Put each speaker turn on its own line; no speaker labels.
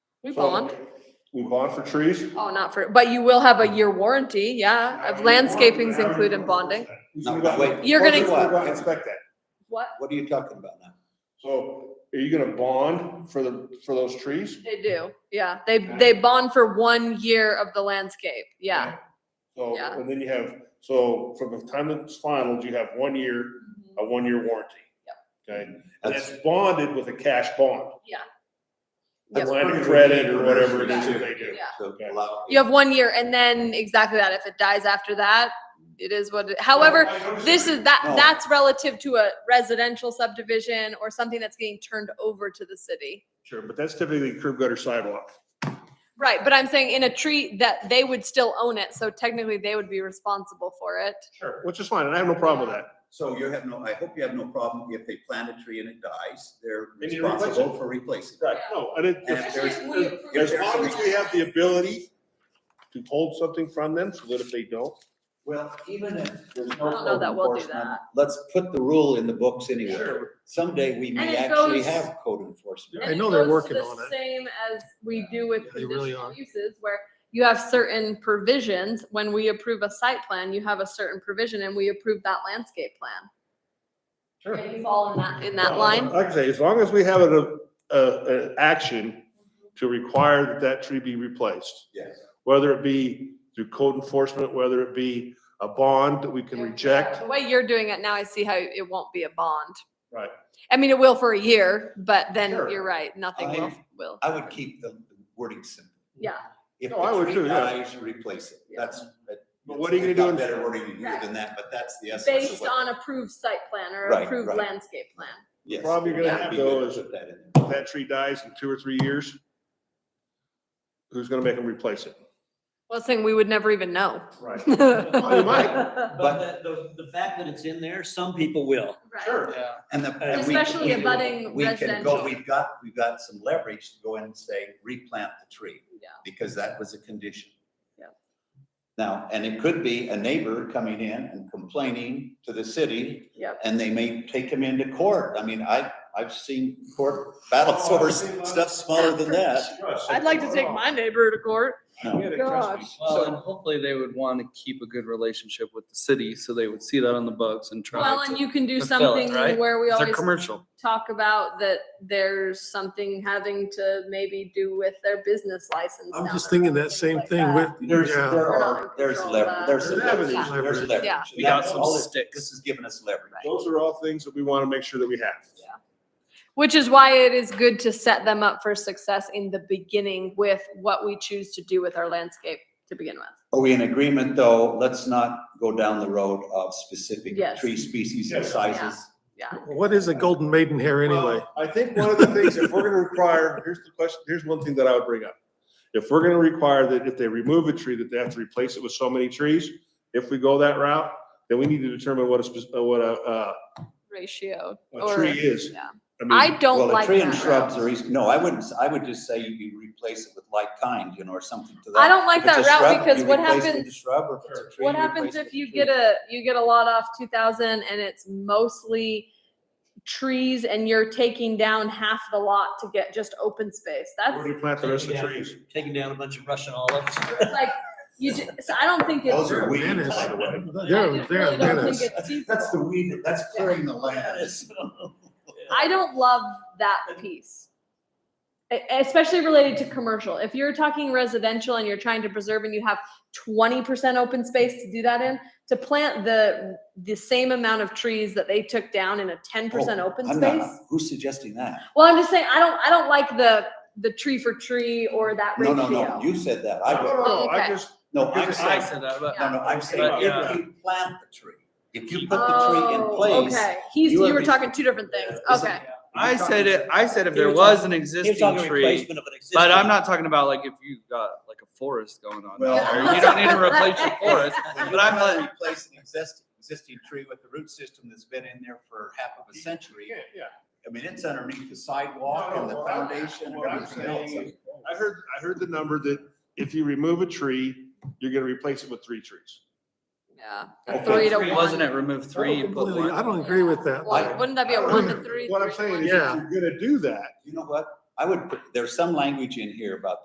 We
So-
bond.
We bond for trees?
Oh, not for, but you will have a year warranty, yeah, Uh, of landscaping's included in bonding.
Who's
No,
gonna go-
wait.
You're
who's
gonna-
go out and Inspect that.
What?
What are you talking about now?
So are you gonna bond for the, for those trees?
They do, yeah. They, they bond for one year of the landscape, yeah.
So,
Yeah.
and then you have, so from the time it's finalized, you have one year, a one-year warranty. Okay, and
That's,
it's bonded with a cash bond.
Yeah.
A
Yep.
line of credit or whatever it is that they do.
Yeah.
so,
Okay.
allow-
You have one year and then exactly that. If it dies after that, it is what, it- however, this is that,
No.
that's relative to a residential subdivision or something that's getting turned over to the city.
Sure, but that's typically curb gutter sidewalk.
Right, but I'm saying in a tree that they would still own it, so technically they would be responsible for it.
Sure. Which is fine, and I have no problem with that.
so you have no, I hope you have no problem if they plant a tree and it dies, they're
And you replace it.
responsible for replacing. it.
Right. No, and it,
And if there's-
as long as we have the ability to hold something from them, so that if they don't,
Well, even if there's no
I don't know
code
that we'll do
enforcement,
that.
let's put the rule in the books anyway.
Sure.
Someday we
And
may
it
actually
goes-
have code enforcement.
And
I know
it
they're
goes to
working
the
on it.
Same as we do with
Yeah, they really
conditional
are.
uses where you have certain provisions. When we approve a site plan, you have a certain provision and we approve that landscape plan.
Sure.
And you fall in that, in that
Well,
line.
Uh, Like I say, as long as we have an, a, an action to require that that tree be replaced,
Yes.
whether it be through code enforcement, whether it be a bond that we can reject.
The way you're doing it now, I see how it won't be a bond.
Right.
I mean, it will for a year, but then
Sure.
you're right, nothing will,
I-
will.
I would keep the wording simple.
Yeah.
If
No, I would
the
too,
tree
yeah.
dies, replace it. That's. that-
But what are you gonna
we've
do
got
in-
Better wording here
Right.
than that, but that's the essence of
Based
what.
on approved site plan or
Right,
approved
right.
landscape plan.
Yes.
Problem you're gonna
That'd
have,
be
though,
good to
is-
put that in.
If that tree dies in two or three years, who's gonna make them replace it?
Well, saying we would never even know.
Right. you
Right.
But-
But the, the, the fact that it's in there, some people will.
Sure.
And the. and we-
Especially
we-
abutting
we can go-
residential.
We've got, we've got some leverage to go in and say, replant the tree.
Yeah.
Because that was a condition.
Yeah.
Now, and it could be a neighbor coming in and complaining to the city
Yep.
and they may take him into court. I mean, I, I've seen court battles
Oh,
over s- stuff smaller than that.
I'd like to take my neighbor to court.
No.
Gosh.
Well, and hopefully they would want to keep a good relationship with the city, so they would see that on the books and try
Well, and
to.
you can do
fulfill it,
something
right?
where we
They're
always
commercial.
talk about that there's something having to maybe do with their business license.
I'm
down
just
the road,
thinking that
things
same
like
thing
that.
with,
There's,
yeah,
there
We're not in
are, there's
control of
leverage,
that.
there's some
There's
leverage,
leverage.
there's leverage.
Yeah.
And
We got
that's
some
all it-
sticks.
This has given us leverage.
Those are all things that we wanna make sure that we have.
Which is why it is good to set them up for success in the beginning with what we choose to do with our landscape to begin with.
Are we in agreement, though? Let's not go down the road of specific
Yes.
tree species and
Yes.
sizes.
what is a golden maidenhair anyway?
Well, I think one of the things, if we're gonna require, here's the question, here's one thing that I would bring up. If we're gonna require that if they remove a tree, that they have to replace it with so many trees, if we go that route, then we need to determine what a, spec- uh, what a, uh,
Ratio.
a
or-
tree is.
yeah.
I mean,
I don't
Well, a
like
tree and
that.
shrubs
route.
are easy. No, I wouldn't, s- I would just say you replace it with like kind, you know, or something to that.
I don't like
If it's
that
a
route
shrub,
because
you
what
replace it with a
happens,
Shrub or if it's a tree.
what
you
happens
replace it
if
with
you
tree.
get a, you get a lot off two thousand and it's mostly trees and you're taking down half the lot to get just open space?
where
That's
do you plant the rest of the trees?
Taking down a bunch of Russian olives.
like, you, ju- so I don't think it's.
Those are weeds,
Menace.
by the way.
They're, they're a
really don't
menace.
think it's
That's the weed, that's clearing the land.
I don't love that piece. E- Especially related to commercial. If you're talking residential and you're trying to preserve and you have twenty percent open space to do that in, to plant the, the same amount of trees that they took down in a ten percent open
Oh, I'm not-
space.
Who's suggesting that?
Well, I'm just saying, I don't, I don't like the, the tree for tree or that
No, no, no,
ratio.
you said that.
I
I,
don't
would-
know,
Oh, okay.
I just,
no, I'm
Because
I
saying,
said that, but
no, no, I'm saying
But,
if
yeah.
you plant the tree, if you put the tree in
Oh,
place.
Okay, he's,
you
you
are
were
be-
talking two different things,
Is it-
okay.
I said it, I said if
He
there
was
was an
talking-
existing tree,
of an existing.
but I'm not talking about like if you've got like a forest going on.
Well,
there. You don't need to replace your forest.
But
But I'm
I'm
not-
gonna replace an existing, existing tree with the root system that's been in there for half of a century.
yeah, yeah.
I mean, it's underneath the sidewalk and the
No, no, well,
foundation and
what I'm
everything
saying
else.
is- I heard, I heard the number that if you remove a tree, you're gonna replace it with three trees.
Yeah,
I think
three to
three
one.
Wasn't it remove three, you put
Completely, I
one?
don't agree with that.
Well, Wouldn't that be a one to three?
What I'm
three to
saying
one?
is, if
Yeah.
you're gonna do that,
You know what? I would, put- there's some language in here about